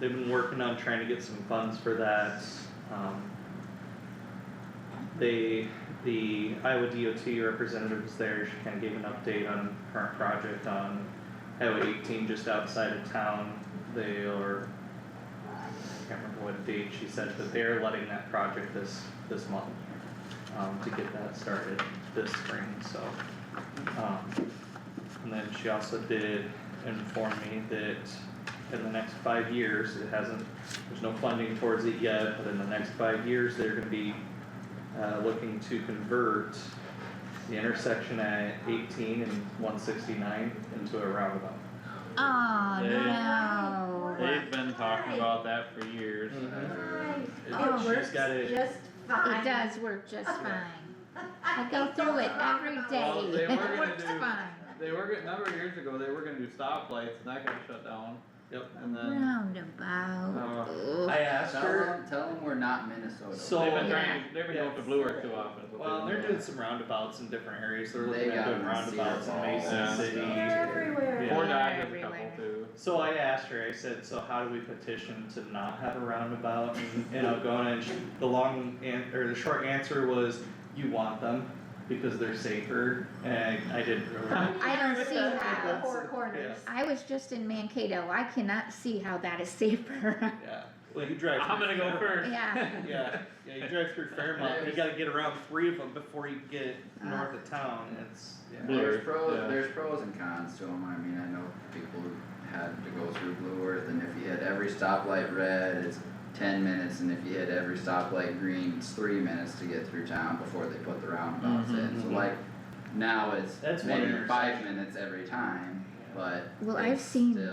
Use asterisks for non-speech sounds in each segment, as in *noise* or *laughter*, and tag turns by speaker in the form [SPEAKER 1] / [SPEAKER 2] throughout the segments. [SPEAKER 1] they've been working on trying to get some funds for that, um. They, the Iowa DOT representatives there, she kinda gave an update on current project on Highway eighteen just outside of town. They are, I can't remember what date she said, but they are letting that project this, this month, um, to get that started this spring, so. Um, and then she also did inform me that in the next five years, it hasn't, there's no funding towards it yet, but in the next five years, they're gonna be uh, looking to convert the intersection at eighteen and one sixty-nine into a roundabout.
[SPEAKER 2] Oh,
[SPEAKER 3] They-
[SPEAKER 2] no.
[SPEAKER 3] They've been talking about that for years.
[SPEAKER 2] Oh,
[SPEAKER 1] She's
[SPEAKER 2] she's
[SPEAKER 1] got it-
[SPEAKER 4] Just fine.
[SPEAKER 2] It does work just fine. I go through it every
[SPEAKER 3] Well,
[SPEAKER 2] day.
[SPEAKER 3] they were
[SPEAKER 2] It
[SPEAKER 3] gonna
[SPEAKER 2] works
[SPEAKER 3] do-
[SPEAKER 2] fine.
[SPEAKER 3] They were, get- a number of years ago, they were gonna do stoplights and that got shut down.
[SPEAKER 1] Yep.
[SPEAKER 3] And then uh,
[SPEAKER 2] Roundabout. Ugh.
[SPEAKER 1] I asked
[SPEAKER 5] Tell
[SPEAKER 1] her,
[SPEAKER 5] them, tell them we're not Minnesota.
[SPEAKER 1] So-
[SPEAKER 3] they've been
[SPEAKER 2] Yeah.
[SPEAKER 3] trying, to- they've been going to Blue Earth too often. is what
[SPEAKER 1] well,
[SPEAKER 3] they've
[SPEAKER 1] they're
[SPEAKER 3] been
[SPEAKER 1] doing some roundabouts in different areas, they're
[SPEAKER 5] They
[SPEAKER 1] looking at
[SPEAKER 5] got
[SPEAKER 1] doing
[SPEAKER 5] them in
[SPEAKER 1] roundabouts in
[SPEAKER 5] Cedar
[SPEAKER 1] Mason
[SPEAKER 3] Falls.
[SPEAKER 1] City.
[SPEAKER 4] They're everywhere.
[SPEAKER 3] doing. Fort
[SPEAKER 2] Yeah,
[SPEAKER 3] Dodge has a couple
[SPEAKER 2] everywhere.
[SPEAKER 3] too.
[SPEAKER 1] So I asked her, I said, so how do we petition to not have a roundabout in Algona? And she, the long, an- or the short answer was, you want them because they're safer, and I didn't
[SPEAKER 4] *laughs*
[SPEAKER 1] really.
[SPEAKER 2] I don't see
[SPEAKER 4] The
[SPEAKER 2] how.
[SPEAKER 4] four corners.
[SPEAKER 2] I was just in Mankato. I cannot see how that is safer.
[SPEAKER 3] *laughs*
[SPEAKER 1] Yeah, well, you drive.
[SPEAKER 3] I'm
[SPEAKER 1] through
[SPEAKER 3] gonna go
[SPEAKER 1] Fair-
[SPEAKER 3] first.
[SPEAKER 2] Yeah.
[SPEAKER 1] Yeah, yeah, you drive through Fairmont, you gotta get around three of them before you get north of town, it's, yeah.
[SPEAKER 3] Blue
[SPEAKER 5] There's
[SPEAKER 3] Earth,
[SPEAKER 5] pros,
[SPEAKER 3] yeah.
[SPEAKER 5] there's pros and cons to them, I mean, I know people who had to go through Blue Earth, and if you hit every stoplight red, it's ten minutes, and if you hit every stoplight green, it's three minutes to get through town before they put the roundabouts in, so
[SPEAKER 1] Mhm.
[SPEAKER 5] like, now it's
[SPEAKER 1] That's one
[SPEAKER 5] maybe five
[SPEAKER 1] intersection.
[SPEAKER 5] minutes every time, but
[SPEAKER 2] Well, I've
[SPEAKER 5] it's
[SPEAKER 2] seen
[SPEAKER 5] still-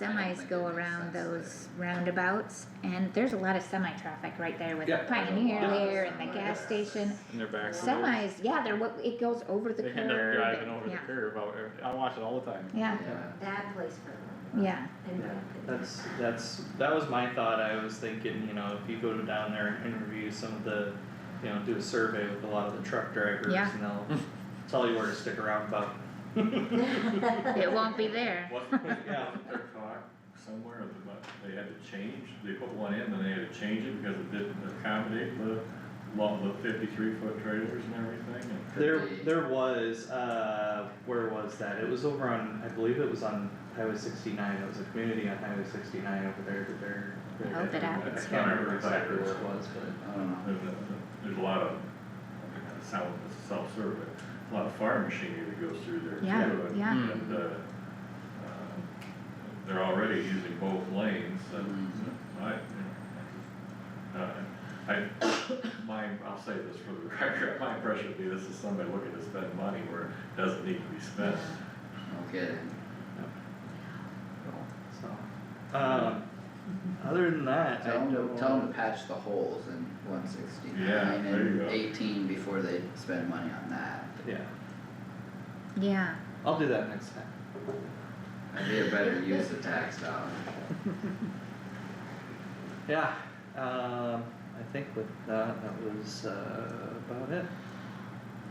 [SPEAKER 5] I don't
[SPEAKER 2] Semis
[SPEAKER 5] think
[SPEAKER 2] go
[SPEAKER 5] it makes
[SPEAKER 2] around
[SPEAKER 5] sense
[SPEAKER 2] those roundabouts and there's a lot of semi traffic right there with the
[SPEAKER 1] Yeah.
[SPEAKER 2] Pioneer
[SPEAKER 5] Yeah.
[SPEAKER 2] there and the
[SPEAKER 5] Yeah.
[SPEAKER 2] gas station.
[SPEAKER 3] And they're back. to those.
[SPEAKER 2] Semis, yeah, they're what, it goes over the
[SPEAKER 3] They
[SPEAKER 2] curb.
[SPEAKER 3] end up driving
[SPEAKER 2] and-
[SPEAKER 3] over the
[SPEAKER 2] yeah,
[SPEAKER 3] curb. I, I watch it all the time.
[SPEAKER 2] Yeah,
[SPEAKER 5] that- Yeah,
[SPEAKER 4] Bad place for them.
[SPEAKER 2] yeah.
[SPEAKER 4] And- uh,
[SPEAKER 1] Yeah, that's, that's, that was my thought, I was thinking, you know, if you go down there and interview some of the, you know, do a survey with a lot of the truck drivers
[SPEAKER 2] Yeah.
[SPEAKER 1] and they'll tell you where to stick around about.
[SPEAKER 2] It won't be there.
[SPEAKER 6] What,
[SPEAKER 1] Yeah.
[SPEAKER 6] yeah, their car somewhere, they might- they had to change, they put one in, then they had to change it because it didn't accommodate the, lo- the fifty-three foot trailers and everything, and
[SPEAKER 1] There,
[SPEAKER 5] Could be.
[SPEAKER 1] there was, uh, where was that? It was over on, I believe it was on Highway sixty-nine, it was a community on Highway sixty-nine over there that they're. they're
[SPEAKER 2] Oh, but I would
[SPEAKER 1] I
[SPEAKER 2] say-
[SPEAKER 1] can't remember exactly where it was, but.
[SPEAKER 5] I don't know.
[SPEAKER 6] there's a, there's a lot of, it sounds self-serve, but a lot of farm machinery that goes through there too.
[SPEAKER 2] Yeah,
[SPEAKER 6] and-
[SPEAKER 2] yeah.
[SPEAKER 6] And, uh, uh, they're already using both lanes, and
[SPEAKER 3] Mm-hmm.
[SPEAKER 6] I, you know, uh, I, my, I'll say this for the *laughs* record, my impression would be this is somebody looking to spend money where it doesn't need to be spent.
[SPEAKER 5] no kidding.
[SPEAKER 1] So, um, other than that, I
[SPEAKER 5] Tell them,
[SPEAKER 1] don't.
[SPEAKER 5] tell them to patch the holes in one
[SPEAKER 6] Yeah,
[SPEAKER 5] sixty-nine
[SPEAKER 6] there you
[SPEAKER 5] and
[SPEAKER 6] go.
[SPEAKER 5] eighteen before they spend money on that.
[SPEAKER 1] Yeah,
[SPEAKER 2] Yeah,
[SPEAKER 1] I'll do that next time.
[SPEAKER 5] That'd be a better use of tax dollars.
[SPEAKER 1] Yeah, um, I think with that, that was, uh, about it.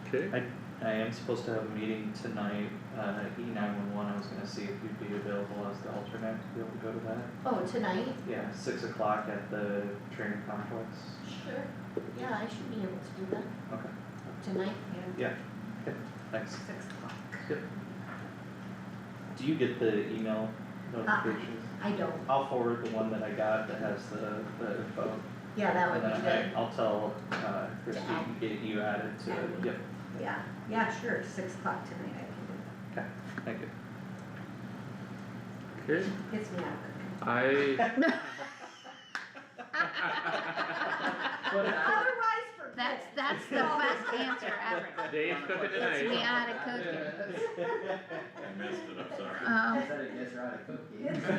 [SPEAKER 3] Okay.
[SPEAKER 1] I, I am supposed to have a meeting tonight, uh, E nine one one, I was gonna see if you'd be available as the alternate to be able to go to that.
[SPEAKER 4] Oh, tonight?
[SPEAKER 1] Yeah, six o'clock at the training complex.
[SPEAKER 4] Sure. Yeah, I should be able to do that
[SPEAKER 1] Okay.
[SPEAKER 4] tonight.
[SPEAKER 1] Yeah, okay, thanks.
[SPEAKER 4] Six o'clock.
[SPEAKER 1] Do you get the email notifications?
[SPEAKER 4] I don't.
[SPEAKER 1] I'll forward the one that I got that has the, the info.
[SPEAKER 4] Yeah, that would
[SPEAKER 1] And
[SPEAKER 4] be
[SPEAKER 1] then I,
[SPEAKER 4] good.
[SPEAKER 1] I'll tell, uh, Christie
[SPEAKER 4] add.
[SPEAKER 1] to get you added to it. Yep,
[SPEAKER 4] Yeah, yeah, sure. Six o'clock tonight I can do
[SPEAKER 1] thank you.
[SPEAKER 3] Okay.
[SPEAKER 4] it. Gets me out of control.
[SPEAKER 3] I.
[SPEAKER 4] Otherwise, forget.
[SPEAKER 2] that's,
[SPEAKER 4] it.
[SPEAKER 2] that's the best answer ever. *laughs*
[SPEAKER 3] Dave's cooking
[SPEAKER 2] We
[SPEAKER 3] tonight.
[SPEAKER 2] out of cooking.
[SPEAKER 6] I missed it, I'm sorry.
[SPEAKER 2] Um,
[SPEAKER 5] Said it gets her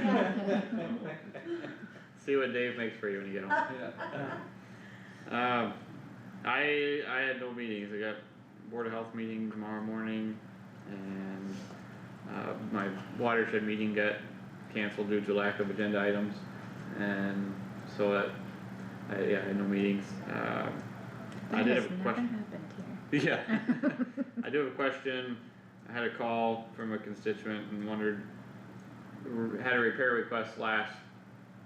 [SPEAKER 5] out of cookies.
[SPEAKER 1] *laughs*
[SPEAKER 3] See what Dave makes for you when you get home. Um, I I had no meetings. I got board of health meeting tomorrow morning, and uh, my watershed meeting got canceled due to lack of agenda items, and so that I yeah I had no meetings. Um, I
[SPEAKER 2] that
[SPEAKER 3] did
[SPEAKER 2] has
[SPEAKER 3] have a
[SPEAKER 2] Oh, never
[SPEAKER 3] question. *laughs*
[SPEAKER 2] happened here.
[SPEAKER 3] Yeah. I do have a question. I had a call from a constituent and wondered, had a repair request last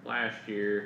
[SPEAKER 3] last year.